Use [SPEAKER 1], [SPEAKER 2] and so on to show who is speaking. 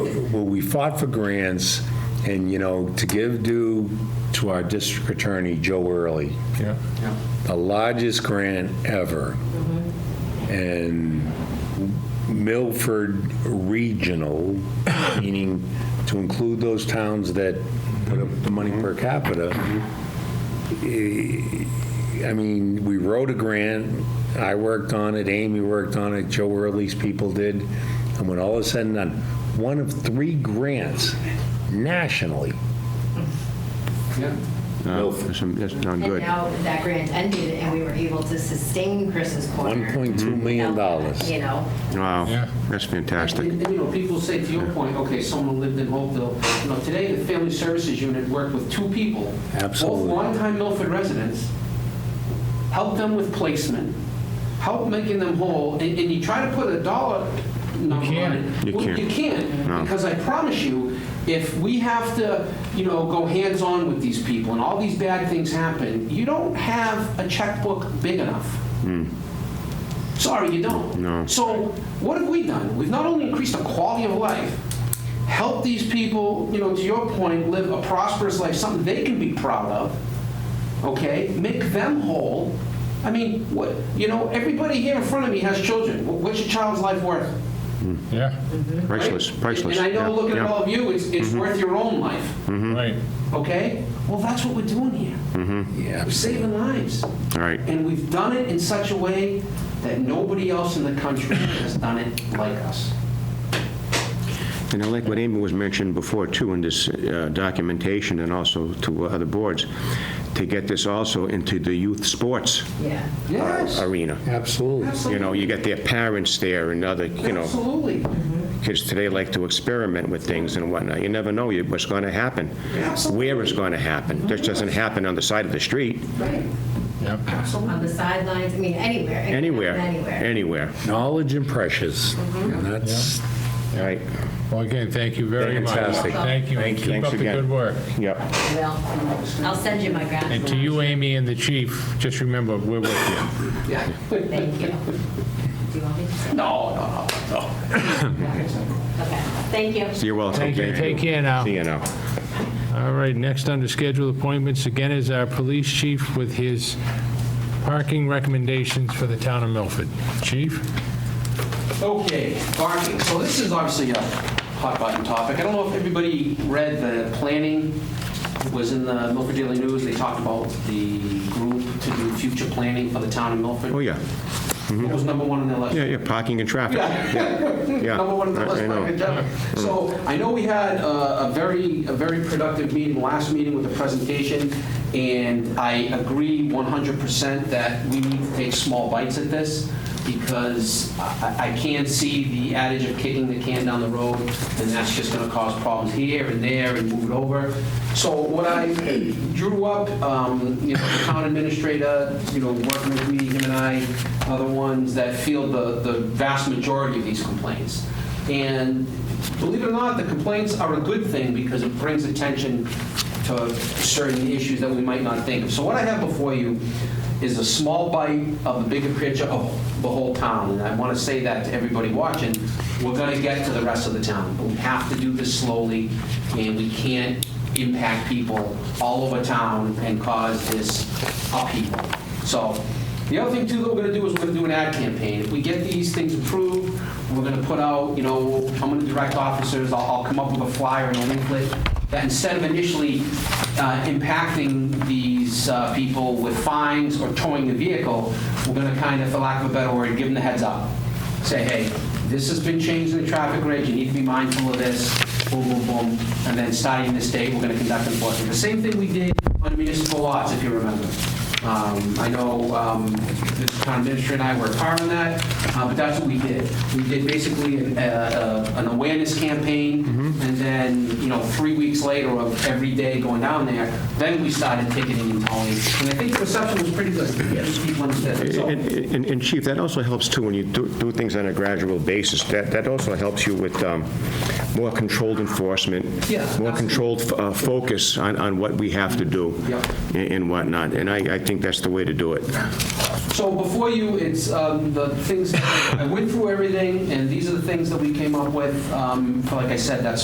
[SPEAKER 1] where we fought for grants, and, you know, to give due to our district attorney, Joe Early,
[SPEAKER 2] Yeah.
[SPEAKER 1] the largest grant ever. And Milford Regional, meaning to include those towns that put up the money per capita. Eh, I mean, we wrote a grant, I worked on it, Amy worked on it, Joe Early's people did. And when all is said and done, one of three grants nationally.
[SPEAKER 3] No, That's that's not
[SPEAKER 4] And
[SPEAKER 3] good.
[SPEAKER 4] now that grant ended and we were able to sustain Chris's corner.
[SPEAKER 3] Mm-hmm.
[SPEAKER 1] $1.2 million.
[SPEAKER 4] without, You know,
[SPEAKER 3] Wow,
[SPEAKER 2] Yeah.
[SPEAKER 3] that's fantastic.
[SPEAKER 5] And, and, you know, people say, to your point, okay, someone lived in Hopeville. You know, today, the Family Services Unit worked with two people.
[SPEAKER 1] Absolutely.
[SPEAKER 5] Both longtime Milford residents, helped them with placement, helped making them whole, and, and you try to put a dollar number on
[SPEAKER 2] can't.
[SPEAKER 5] it.
[SPEAKER 3] You
[SPEAKER 5] Well,
[SPEAKER 3] can't.
[SPEAKER 5] You can't, because I promise you, if we have to, you know, go hands-on with these people and all these bad things happen, you don't have a checkbook big enough. Sorry, you don't.
[SPEAKER 3] Hmm. No.
[SPEAKER 5] So what have we done? We've not only increased the quality of life, helped these people, you know, to your point, live a prosperous life, something they can be proud of, okay? Make them whole. I mean, what, you know, everybody here in front of me has children. Wh- What's your child's life worth?
[SPEAKER 2] Yeah,
[SPEAKER 5] right?
[SPEAKER 3] Priceless, priceless.
[SPEAKER 5] And I know,
[SPEAKER 3] Yeah,
[SPEAKER 5] looking at
[SPEAKER 3] yeah. Mm-hmm.
[SPEAKER 5] all of you, it's, it's worth your own life,
[SPEAKER 2] right.
[SPEAKER 5] okay? Well, that's what we're doing here.
[SPEAKER 1] Yeah.
[SPEAKER 5] We're saving lives.
[SPEAKER 3] All right,
[SPEAKER 5] And we've done it in such a way that nobody else in the country has done it like us.
[SPEAKER 3] and I like what Amy was mentioning before, too, in this uh, documentation and also to other boards, to get this also into the youth sports uh,
[SPEAKER 4] yeah.
[SPEAKER 5] Yes,
[SPEAKER 3] arena.
[SPEAKER 1] Absolutely.
[SPEAKER 3] Uh, You know,
[SPEAKER 5] absolutely.
[SPEAKER 3] you got their parents there and other, you know,
[SPEAKER 5] Absolutely.
[SPEAKER 3] kids today like to experiment with things and whatnot. You never know you- what's going to happen,
[SPEAKER 5] Absolutely.
[SPEAKER 3] where it's going to happen. This doesn't happen on the side of the street,
[SPEAKER 5] Right.
[SPEAKER 2] Yep.
[SPEAKER 4] On the sidelines, I mean, anywhere. it can
[SPEAKER 3] anywhere,
[SPEAKER 4] happen Anywhere.
[SPEAKER 3] anywhere.
[SPEAKER 1] Knowledge and precious. And that's,
[SPEAKER 3] All right,
[SPEAKER 2] Well, again, thank you very much.
[SPEAKER 1] Fantastic.
[SPEAKER 2] Thank you.
[SPEAKER 3] Thank you.
[SPEAKER 2] Keep
[SPEAKER 3] Thanks
[SPEAKER 2] up the
[SPEAKER 3] again.
[SPEAKER 2] good work.
[SPEAKER 3] yep.
[SPEAKER 4] Well, I'll send you my grant.
[SPEAKER 2] And to you, Amy, and the chief, just remember, we're with you.
[SPEAKER 5] Yeah.
[SPEAKER 4] Thank you. Do you want me to say?
[SPEAKER 5] No, no, no.
[SPEAKER 4] Okay, thank you.
[SPEAKER 3] You're welcome.
[SPEAKER 2] Thank you. Take care now.
[SPEAKER 3] See you now.
[SPEAKER 2] All right, next under scheduled appointments, again, is our police chief with his parking recommendations for the town of Milford. Chief?
[SPEAKER 5] Okay, parking. So this is obviously a hot button topic. I don't know if everybody read the planning It was in the Milford Daily News. They talked about the group to do future planning for the town of Milford.
[SPEAKER 3] Oh, yeah,
[SPEAKER 5] What was number one on their list?
[SPEAKER 3] Mm-hmm. yeah, yeah, parking and traffic. Yeah.
[SPEAKER 5] number one on the
[SPEAKER 3] I-
[SPEAKER 5] list,
[SPEAKER 3] I know.
[SPEAKER 5] Mike and Jeff. So I know we had uh, a very, a very productive meeting, last meeting with the presentation, and I agree 100% that we need to take small bites at this, because I I can't see the adage of kicking the can down the road, and that's just going to cause problems here and there and move it over. So what I drew up, um, you know, the town administrator, you know, working with me, him and I, are the ones that field the the vast majority of these complaints. And believe it or not, the complaints are a good thing because it brings attention to certain issues that we might not think of. So what I have before you is a small bite of the bigger picture of the whole town. And I want to say that to everybody watching, we're going to get to the rest of the town. But we have to do this slowly, and we can't impact people all over town and cause this upheaval. So the other thing too that we're gonna do is we're gonna do an ad campaign. If we get these things approved, we're gonna put out, you know, I'm gonna direct officers, I'll, I'll come up with a flyer and a leaflet that instead of initially uh, impacting these uh, people with fines or towing the vehicle, we're gonna kind of, for lack of a better word, give them the heads up say, hey, this has been changed in the traffic reg, you need to be mindful of this, boom, boom, boom, and then starting this date, we're gonna conduct enforcement. The same thing we did on municipal lots, if you remember. Um, I know um, the town administrator and I were part on that, uh, but that's what we did. We did basically an uh, uh, an awareness campaign, and then, you know, three weeks later, of every day going down there, then we started ticketing and towing, and I think the reception was pretty good, people understood it. So-
[SPEAKER 3] And, and- and Chief, that also helps too, when you do, do things on a gradual basis, that, that also helps you with um, more controlled enforcement,
[SPEAKER 5] Yeah,
[SPEAKER 3] more
[SPEAKER 5] absolutely.
[SPEAKER 3] controlled uh, focus on, on what we have to do
[SPEAKER 5] Yep.
[SPEAKER 3] and and whatnot, and I, I think that's the way to do it.
[SPEAKER 5] So before you, it's um, the things, I went through everything, and these are the things that we came up with, um, for, like I said, that's